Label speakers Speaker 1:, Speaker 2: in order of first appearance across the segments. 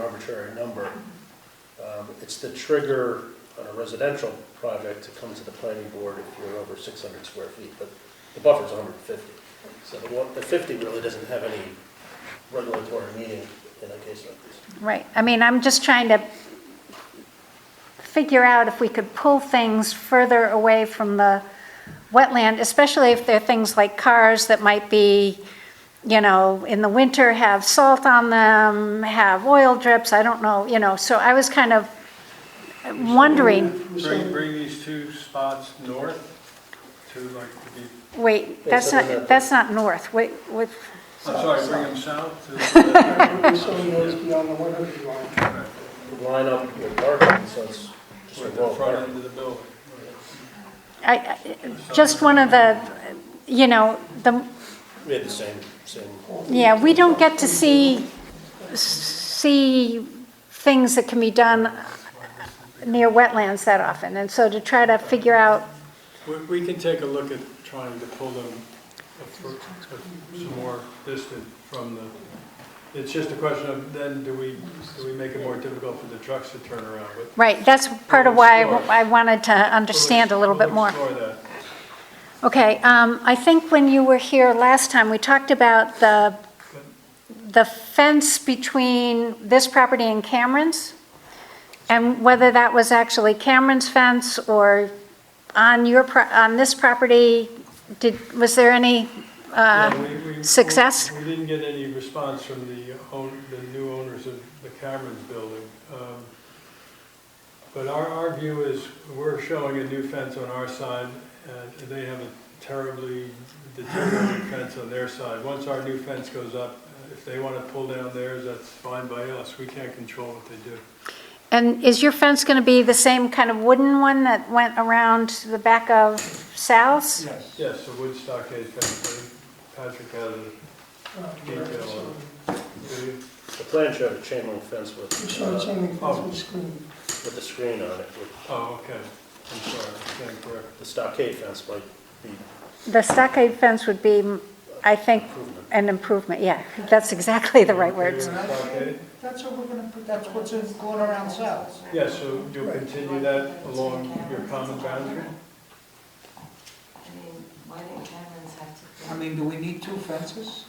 Speaker 1: arbitrary number. Um, It's the trigger on a residential project to come to the planning board if you're over 600 square feet, but the buffer's 150. So the one, the 50 really doesn't have any regulatory meaning in a case like this.
Speaker 2: Right, I mean, I'm just trying to figure out if we could pull things further away from the wetland, especially if they're things like cars that might be, you know, in the winter have salt on them, have oil drips, I don't know, you know, so I was kind of wondering,
Speaker 3: Bring, bring these two spots north to like, the
Speaker 2: wait, that's not, that's not north, wait, wait,
Speaker 3: I'm sorry, bring them south to.
Speaker 4: We're showing those beyond the 100 line.
Speaker 1: Line up your parking, so it's just a
Speaker 3: With
Speaker 1: wall
Speaker 3: the
Speaker 1: of
Speaker 3: front
Speaker 1: parking.
Speaker 3: end of the building.
Speaker 2: I, I- just one of the, you know, the,
Speaker 1: We had the same, same,
Speaker 2: Yeah, we don't get to see, see things that can be done near wetlands that often, and so to try to figure out,
Speaker 3: We, we can take a look at trying to pull them a fir- a- some more distant from the, it's just a question of then do we, do we make it more difficult for the trucks to turn around? But
Speaker 2: right, that's part of why I wanted to understand a little bit more.
Speaker 3: We'll explore that.
Speaker 2: Okay, um, I think when you were here last time, we talked about the, the fence between this property and Cameron's, and whether that was actually Cameron's fence or on your, pro- on this property, did, was there any, uh,
Speaker 3: Yeah, we- we-
Speaker 2: success?
Speaker 3: We didn't get any response from the own, the new owners of the Cameron's building. Um, But our, our view is, we're showing a new fence on our side, and they have a terribly deteriorated fence on their side. Once our new fence goes up, uh, if they want to pull down theirs, that's fine by us, we can't control what they do.
Speaker 2: and is your fence going to be the same kind of wooden one that went around the back of Sal's?
Speaker 3: Yes. Yes, the wood stockade fence, Patrick had a detail on it. Did you?
Speaker 1: the plan showed a chain link fence with,
Speaker 4: We're showing
Speaker 1: uh,
Speaker 4: chain link fence with screen.
Speaker 1: with a screen on it, with
Speaker 3: Oh, okay, I'm sorry, I can't correct.
Speaker 1: the stockade fence might be
Speaker 2: The stockade fence would be, I think,
Speaker 1: improvement.
Speaker 2: an improvement, yeah, that's exactly the right words.
Speaker 3: Okay.
Speaker 4: That's what we're gonna put, that's what's in- going around south.
Speaker 3: Yeah, so you'll continue that along your common boundary?
Speaker 5: I mean, why didn't Cameron's have to?
Speaker 4: I mean, do we need two fences?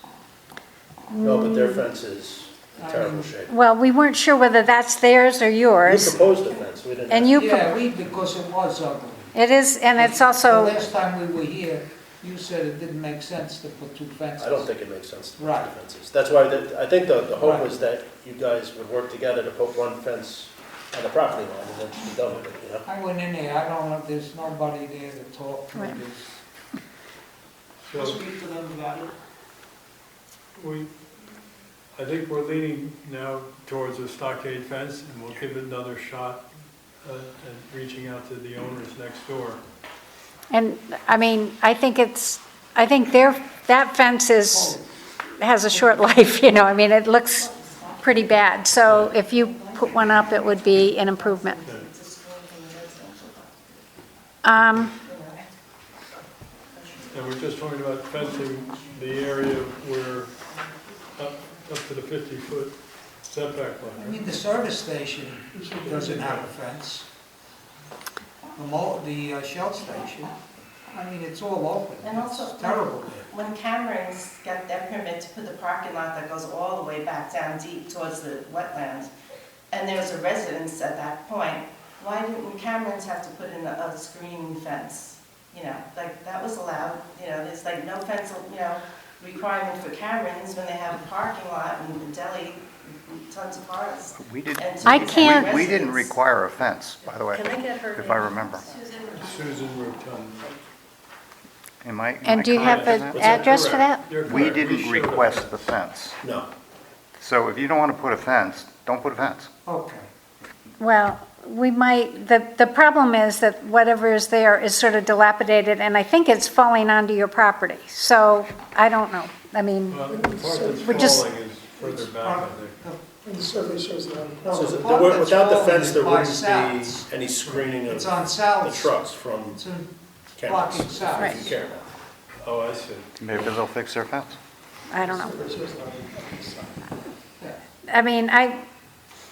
Speaker 1: No, but their fence is in terrible shape.
Speaker 2: Well, we weren't sure whether that's theirs or
Speaker 1: We
Speaker 2: yours,
Speaker 1: proposed a fence, we didn't.
Speaker 2: and you, pro-
Speaker 6: Yeah, we, because it was ugly.
Speaker 2: it is, and it's
Speaker 6: The
Speaker 2: also,
Speaker 6: last time we were here, you said it didn't make sense to put two fences.
Speaker 1: I don't think it makes sense to put two
Speaker 6: Right.
Speaker 1: fences. That's why, the- I think the, the hope
Speaker 6: Right.
Speaker 1: was that you guys would work together to put one fence on the property line and then just be done with it, you know?
Speaker 6: I went in there, I don't know, there's nobody there to talk to,
Speaker 2: Right.
Speaker 6: there's,
Speaker 3: So
Speaker 4: Speak to them about it.
Speaker 3: we, I think we're leaning now towards a stockade fence, and we'll give it another shot uh, at reaching out to the owners next door.
Speaker 2: and, I mean, I think it's, I think their, that fence is, has a short life, you know, I mean, it looks pretty bad, so if you put one up, it would be an improvement. Um,
Speaker 3: And we're just talking about fencing the area where, up, up to the 50-foot setback
Speaker 6: I
Speaker 3: line.
Speaker 6: mean, the service station doesn't have a fence. The mo, the uh, Shell station, I mean, it's all open,
Speaker 5: And also-
Speaker 6: it's terrible there.
Speaker 5: When Cameron's got their permit to put the parking lot that goes all the way back down deep towards the wetlands, and there's a residence at that point, why didn't Cameron's have to put in a, a screen fence? You know, like, that was allowed, you know, there's like no fence, you know, requirement for Cameron's when they have a parking lot and a deli, tons of cars.
Speaker 7: We did,
Speaker 5: and
Speaker 2: I
Speaker 5: two
Speaker 2: can't-
Speaker 5: separate
Speaker 7: we didn't
Speaker 5: residents.
Speaker 7: require a fence, by the way, if I remember.
Speaker 3: Susan Rotund.
Speaker 7: Am I? am
Speaker 2: And
Speaker 7: I
Speaker 2: do you have
Speaker 7: correct in
Speaker 2: an
Speaker 3: What's that?
Speaker 2: address for that?
Speaker 3: You're
Speaker 7: that?
Speaker 3: correct.
Speaker 7: We didn't
Speaker 3: showed a
Speaker 7: request
Speaker 3: fence.
Speaker 7: the fence.
Speaker 1: No,
Speaker 7: So if you don't want to put a fence, don't put a fence.
Speaker 6: Okay.
Speaker 2: Well, we might, the, the problem is that whatever is there is sort of dilapidated, and I think it's falling onto your property, so I don't know. I mean,
Speaker 3: Well, the part
Speaker 2: We're
Speaker 3: that's
Speaker 2: just-
Speaker 3: falling is further back, I think.
Speaker 4: And the survey shows that.
Speaker 1: So
Speaker 6: the
Speaker 1: there
Speaker 6: part
Speaker 1: were-
Speaker 6: that's
Speaker 1: without the
Speaker 6: falling
Speaker 1: fence,
Speaker 6: is
Speaker 1: there
Speaker 6: by
Speaker 1: wouldn't
Speaker 6: Sal's.
Speaker 1: be any screening of
Speaker 6: It's on
Speaker 1: the
Speaker 6: Sal's,
Speaker 1: trucks from
Speaker 6: it's in
Speaker 1: cameras.
Speaker 6: blocking Sal's.
Speaker 2: Right.
Speaker 1: Cameron.
Speaker 3: Oh, I see.
Speaker 7: Maybe they'll fix their fence.
Speaker 2: I don't know.
Speaker 4: Survey shows that.
Speaker 6: Yeah.
Speaker 2: I mean, I,